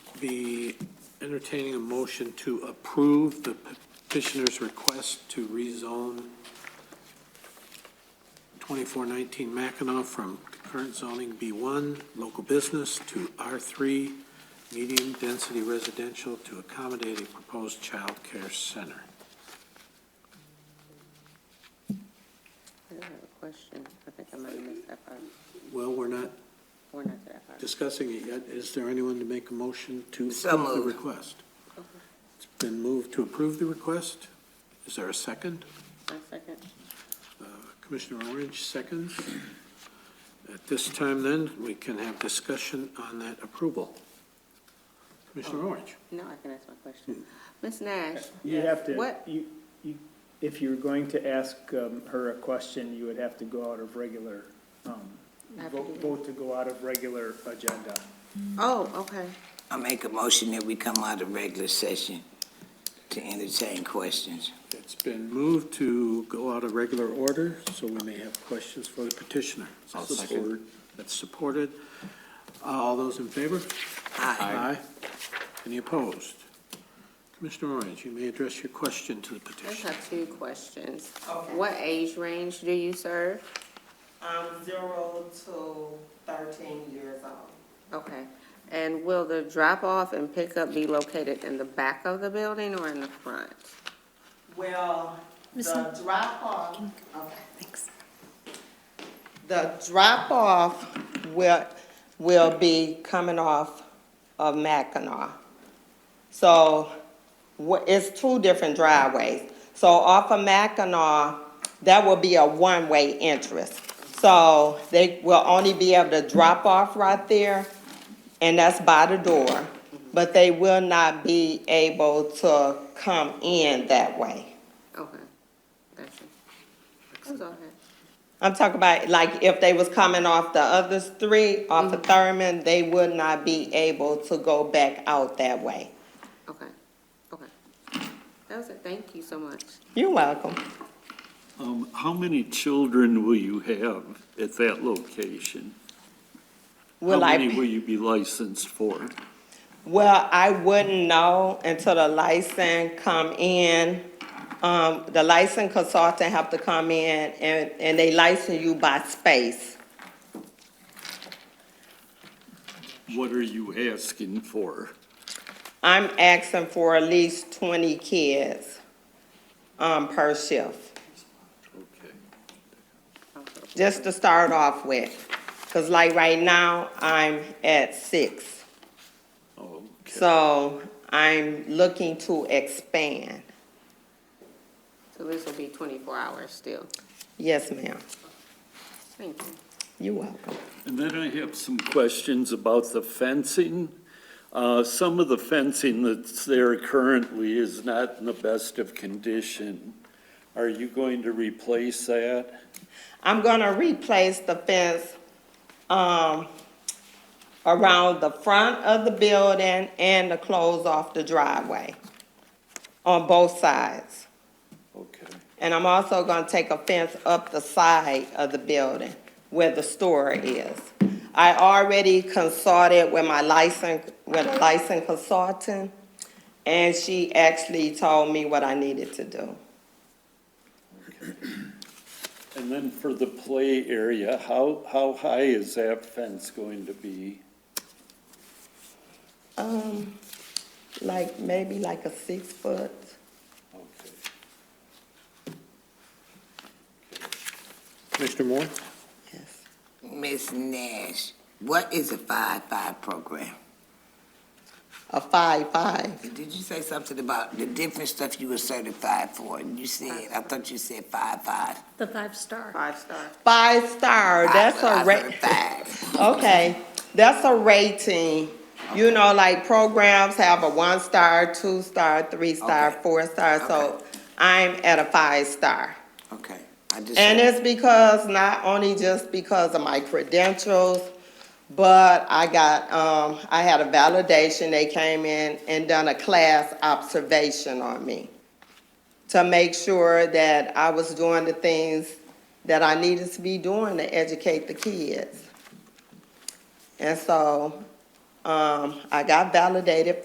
be entertaining a motion to approve the petitioner's request to rezone 2419 Mackinac from current zoning B1, local business, to R3, medium-density residential, to accommodate a proposed child care center. I don't have a question. I think I might have missed that part. Well, we're not We're not to that part. discussing it yet. Is there anyone to make a motion to So approve the moved. request? It's been moved to approve the request. Is there a second? My second. Uh, Commissioner Orange seconds. At this time then, we can have discussion on that approval. Commissioner Orange? No, I can ask my question. Ms. Nash? You have to, What? you, you, if you're going to ask um, her a question, you would have to go out of regular, um, I have to do vote that. vote to go out of regular agenda. Oh, okay. I make a motion that we come out of regular session to entertain questions. It's been moved to go out of regular order, so we may have questions for the petitioner. I'll second. That's supported. All those in favor? Aye. Aye. Any opposed? Commissioner Orange, you may address your question to the I just petitioner. have two questions. Okay. What age range do you serve? Um, zero to thirteen years old. Okay. And will the drop-off and pickup be located in the back of the building or in the front? Well, the Miss Hunt. drop-off, okay. Thanks. The drop-off will, will be coming off of Mackinac. So, wha- it's two different driveways. So off of Mackinac, that will be a one-way entrance. So they will only be able to drop off right there, and that's by the door. But they will not be able to come in that way. Okay. Gotcha. That's all I had. I'm talking about, like, if they was coming off the other street, off of Thurman, they would not be able to go back out that way. Okay. Okay. That was it. Thank you so much. You're welcome. Um, how many children will you have at that location? How Will many will I, you be licensed for? well, I wouldn't know until the license come in. Um, the license consultant have to come in and, and they license you by space. What are you asking for? I'm asking for at least twenty kids, um, per shift, Okay. just to start off with. Cause like right now, I'm at six. Oh, okay. So I'm looking to expand. So this will be twenty-four hours still. Yes, ma'am. Thank you. You're welcome. And then I have some questions about the fencing. Uh, Some of the fencing that's there currently is not in the best of condition. Are you going to replace that? I'm gonna replace the fence, um, around the front of the building and to close off the driveway on both sides. Okay. And I'm also gonna take a fence up the side of the building where the store is. I already consulted with my license, with a licensed consultant, and she actually told me what I needed to do. And then for the play area, how, how high is that fence going to be? Um, like, maybe like a six foot. Okay. Commissioner Moore? Yes. Ms. Nash, what is a five-five program? A five, five. Did you say something about the different stuff you were certified for? And you said, I thought you said five-five. The five-star. Five star. Five star, that's a ra- okay, that's a rating. You know, like programs have a one star, two star, three star, Okay. four star, so I'm at a five star. Okay, I just. And it's because, not only just because of my credentials, but I got, um, I had a validation, they came in and done a class observation on me to make sure that I was doing the things that I needed to be doing to educate the kids. And so Um, I got validated